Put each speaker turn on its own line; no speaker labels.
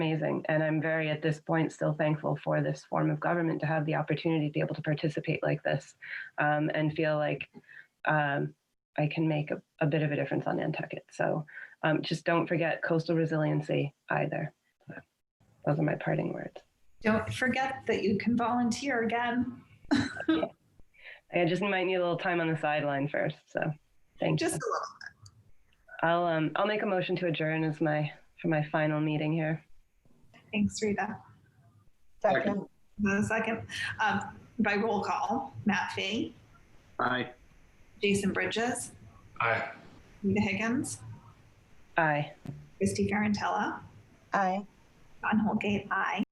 amazing. And I'm very, at this point, still thankful for this form of government to have the opportunity to be able to participate like this um, and feel like um, I can make a, a bit of a difference on Nantucket. So um, just don't forget coastal resiliency either. Those are my parting words.
Don't forget that you can volunteer again.
I just might need a little time on the sideline first. So thank
Just a
you.
little.
I'll um I'll make a motion to adjourn as my for my final meeting here.
Thanks, Rita.
Second.
The second, um, by roll call, Matt Fee,
Aye.
Jason Bridges,
Aye.
Rita Higgins,
Aye.
Christy Ferrantella,
Aye.
John Holgate, I.